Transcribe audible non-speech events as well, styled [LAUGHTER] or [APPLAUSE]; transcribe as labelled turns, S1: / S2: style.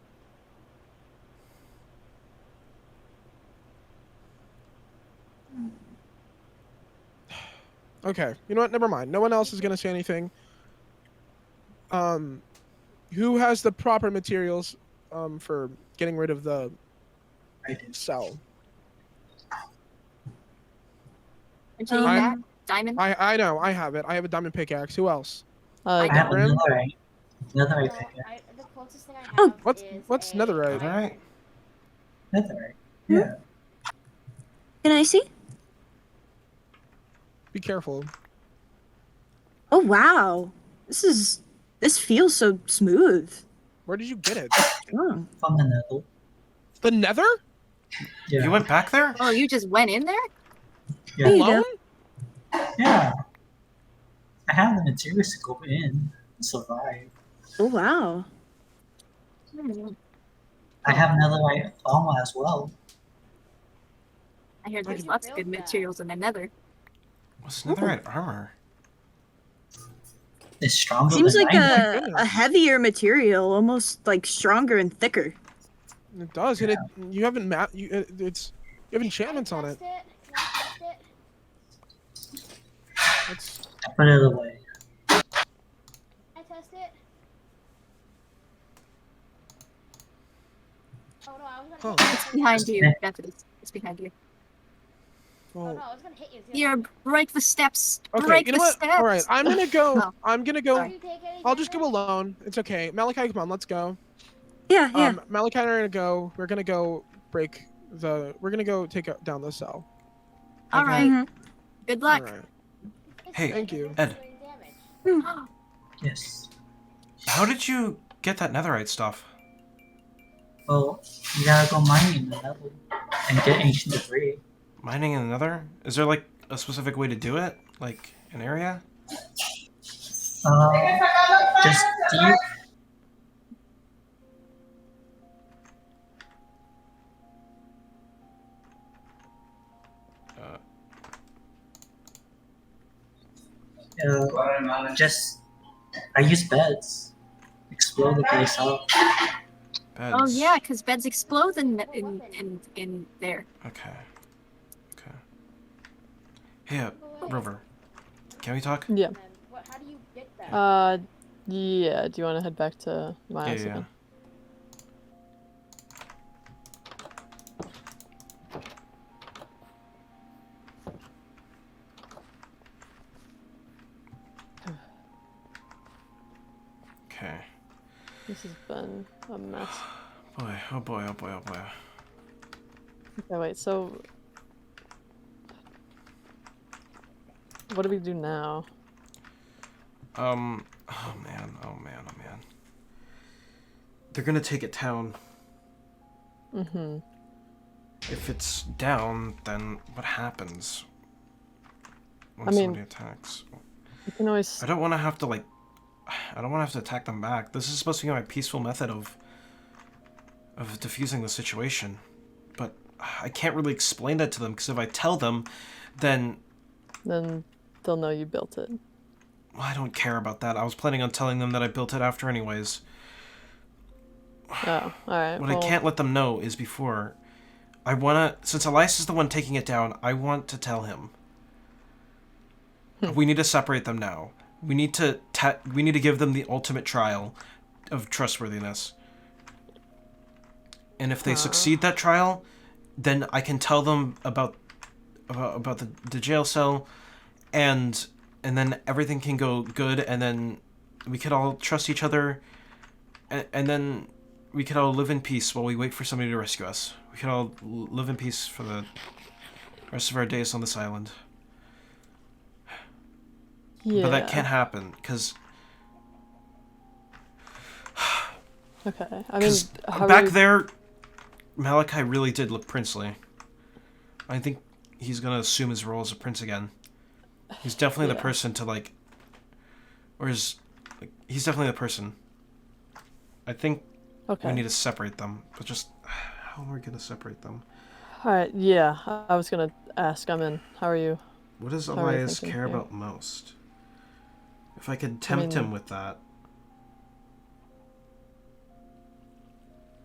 S1: Okay. You know what? Never mind. No one else is gonna say anything. Um, who has the proper materials um for getting rid of the
S2: I did.
S1: cell?
S3: And she
S1: I'm-
S3: that diamond.
S1: I I know. I have it. I have a diamond pickaxe. Who else?
S4: Uh,
S2: I have
S1: Grim?
S2: another eye. Another eye
S5: So,
S2: pickaxe.
S5: I, the closest thing I have
S4: Oh.
S1: What's-
S5: is
S1: what's
S5: a
S1: netherite?
S5: iron.
S2: Another eye. Yeah.
S4: can I see?
S1: Be careful.
S4: Oh wow, this is this feels so smooth.
S1: Where did you get it?
S4: Oh,
S2: From the nether.
S1: The Nether?
S2: Yeah.
S6: You went back there?
S3: Oh, you just went in there?
S2: Yeah.
S4: there you
S1: Alone?
S4: go.
S2: yeah. I have the materials to go in. and Survive.
S4: Oh wow.
S3: Hmm.
S2: I have another eye armor as well.
S3: I hear
S5: Where
S3: there's
S5: did you
S3: lots of
S5: build
S3: good
S5: that?
S3: materials in the nether.
S6: What's netherite armor?
S2: It's stronger
S4: Seems
S2: than
S4: like
S2: iron.
S4: a, a heavier material, almost like stronger and thicker.
S1: It does, and it you haven't map you it, it's you have enchantments on it.
S5: Can I test it?
S1: That's
S2: I put it away.
S5: Can I test it? Oh no, I was gonna
S1: Huh.
S5: hit you.
S3: Behind you, that's what it is. It's behind you.
S5: Oh no,
S1: well
S5: I was gonna hit you.
S3: Here, break the steps.
S1: Okay,
S3: break
S1: you know
S3: the
S1: what?
S3: steps.
S1: All right, I'm gonna go.
S3: [LAUGHS] No.
S1: I'm gonna go.
S5: Do you take any
S1: I'll just go
S5: damage?
S1: alone. It's okay. Malachi, come on, let's go.
S4: Yeah, yeah.
S1: Um, Malachi and I are gonna go. We're gonna go break the. We're gonna go take out down the cell.
S3: All
S6: Okay.
S3: right.
S4: Mhm.
S3: Good luck.
S1: All right.
S5: It's
S6: Hey,
S5: okay,
S1: Thank
S5: it
S1: you.
S5: doesn't
S6: Ed.
S5: do any damage.
S2: Yes.
S6: How did you get that netherite stuff?
S2: Well, you gotta go mining in the nether and get ancient debris.
S6: Mining in the nether? Is there like a specific way to do it? Like an area?
S2: Uh, just deep.
S6: Uh.
S2: Uh, just I use beds. Explore the place up.
S6: Beds.
S3: Oh, yeah, because beds explode in, in, in, in there.
S6: Okay. Okay. Hey, uh,
S5: Go away.
S6: Rover. Can we talk?
S7: Yeah.
S5: And then what- how do you get that?
S7: Uh, yeah. Do you want to head back to my
S6: Yeah,
S7: house
S6: yeah. yeah.
S7: again?
S6: Okay.
S7: This has been a mess.
S6: Boy, oh boy, oh boy, oh boy.
S7: Okay, wait. So, what do we do now?
S6: Um, oh man, oh man, oh man. They're gonna take it down.
S7: Mm-hmm.
S6: If it's down, then what happens when
S7: I mean-
S6: somebody attacks?
S7: You can always.
S6: I don't want to have to like. [SIGHS] I don't want to have to attack them back. This is supposed to be my peaceful method of of diffusing the situation, but I can't really explain that to them because if I tell them, then
S7: Then they'll know you built it.
S6: well, I don't care about that. I was planning on telling them that I built it after, anyways.
S7: Oh, all right.
S6: What
S7: well,
S6: I can't let them know is before. I wanna, since Elias is the one taking it down, I want to tell him. we need to separate them now. We need to ta- we need to give them the ultimate trial of trustworthiness. And if they succeed that trial, then I can tell them about about, about the, the jail cell, and and then everything can go good, and then we could all trust each other, and, and then we could all live in peace while we wait for somebody to rescue us. We could all l- live in peace for the rest of our days on this island.
S7: Yeah.
S6: But that can't happen because
S7: Okay. I mean,
S6: because
S7: how
S6: back
S7: are we...
S6: there, Malachi really did look princely. I think he's gonna assume his role as a prince again. He's definitely the
S7: Yeah.
S6: person to like, or is like he's definitely the person. I think
S7: Okay.
S6: we need to separate them, but just [SIGHS] how are we gonna separate them?
S7: All right. Yeah. I- I was gonna ask. I'm in. How are you?
S6: What does
S7: Sorry,
S6: Elias
S7: thinking
S6: care
S7: here.
S6: about most? If I could tempt him
S7: mean-
S6: with that,